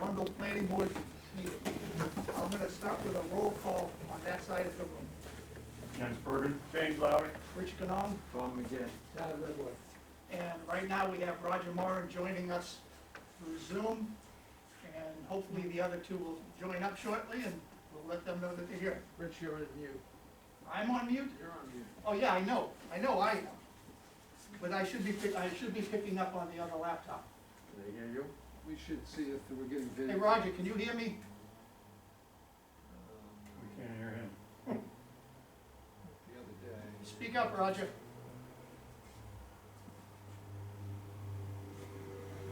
Arundel Planning Board meeting. I'm gonna start with a roll call on that side of the room. Jens Bergen. James Lowry. Rich Canong, Tom again. Tyler Redwood. And right now, we have Roger Moran joining us through Zoom, and hopefully the other two will join up shortly, and we'll let them know that they're here. Rich, you're on mute. I'm on mute? You're on mute. Oh, yeah, I know, I know, I am. But I should be, pick- I should be picking up on the other laptop. Can they hear you? We should see if we're getting Um, Hey, video. Roger, can you hear me? We can't hear him. The other day. Speak up, Roger.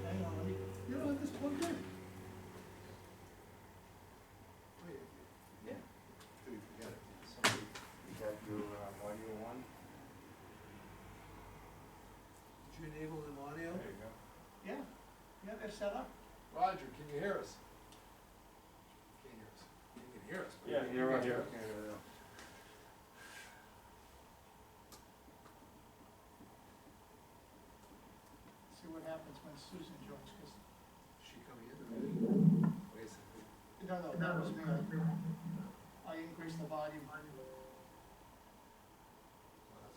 Hang on, let me, you don't have this plugged in? Wait, Yeah. we forgot it. You got your uh, audio on? Did you enable an audio? There you go. Yeah, yeah, they're set up. Roger, can you hear us? Can't hear us. You can hear us. but Yeah, we- you're right here. Okay, there we go. See what happens when Susan joins, because, She coming in? Wait a second. no, no, that was me. I- I increased the volume. Well, that's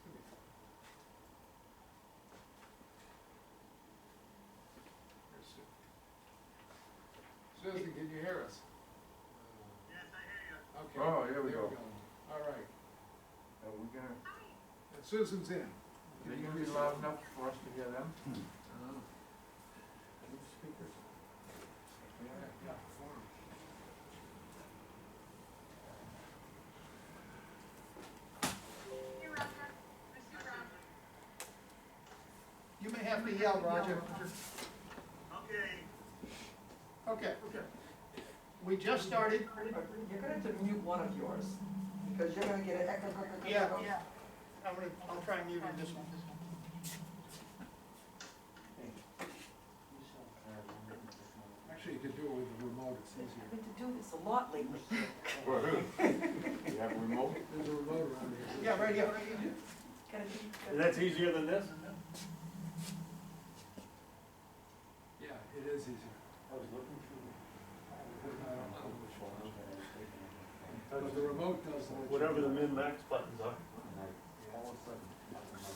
gonna be fun. Here's Su- Susan, can you hear us? Yes, I hear you. Okay. Oh, here we there go. All right, Are we gonna, and Susan's in. are you gonna be loud enough for us to hear them? Oh. Speakers. Yeah, yeah, forum. You may have to yell, Roger. Okay, Okay. We just started. You're gonna have to mute one of yours, because you're gonna get an echo. echo, echo, Yeah. echo. I'm gonna, I'll try and mute on this one. Actually, you could do it with the remote, it's I've easier. been to do this a lot lately. For who? You have a remote? There's a remote around here. Yeah, right here. Gotta be- That's easier than this? Yeah, it is easier. I was looking through. But the remote does let you. Whatever the min max buttons are.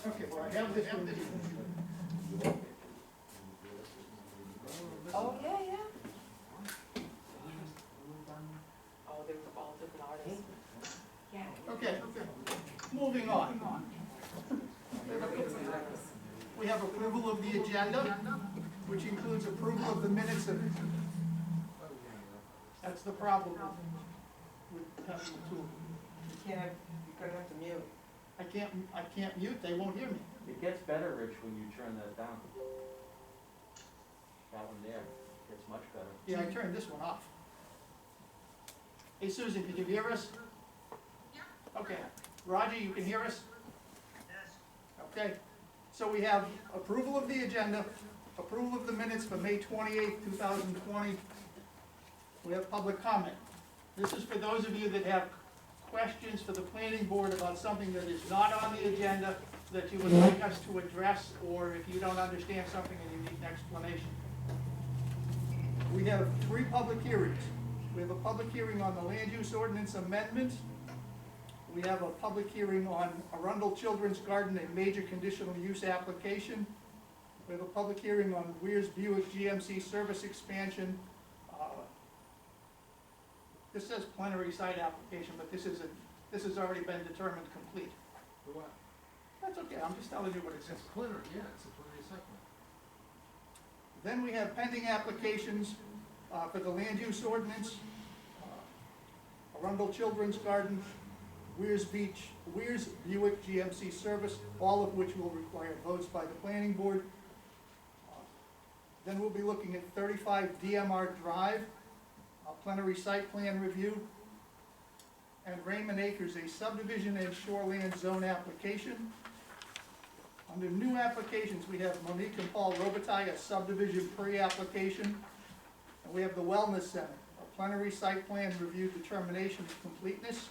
Okay, well, I have this one. Oh, yeah, yeah. Oh, they were all different artists. Yeah. Okay, moving on. We have approval of the agenda, which includes approval of the minutes of, Oh, yeah, that's the problem with having the tool. You can't, have- you're gonna have to mute. I can't, I can't mute, they won't hear me. It gets better, Rich, when you turn that down. That one there gets much better. Yeah, I turned this one off. Hey Susan, can you hear us? Okay, Roger, you can hear us? yes, Okay, so we have approval of the agenda, approval of the minutes for May twenty-eighth, two thousand twenty. We have public comment. This is for those of you that have questions for the planning board about something that is not on the agenda that you would like us to address, or if you don't understand something and you need an explanation. We have three public hearings. We have a public hearing on the land use ordinance amendment, we have a public hearing on Arundel Children's Garden, a major conditional use application. We have a public hearing on Weir's Buick GMC service expansion. Uh, This says plenary site application, but this is a, this has already been determined complete. the what? That's okay, I'm just telling you what it It's says. a plenary, yeah, it's a plenary segment. Then we have pending applications uh, for the land use ordinance, uh, Arundel Children's Garden, Weir's Beach, Weir's Buick GMC service, all of which will require votes by the planning board. Then we'll be looking at thirty-five DMR Drive, a plenary site plan review, and Raymond Acres, a subdivision and shoreland zone application. Under new applications, we have Monique and Paul Robitaille, a subdivision pre-application. And we have the Wellness Center, a plenary site plan review determination of completeness.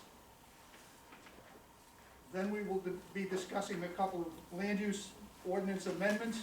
Then we will be discussing a couple of land use ordinance amendments.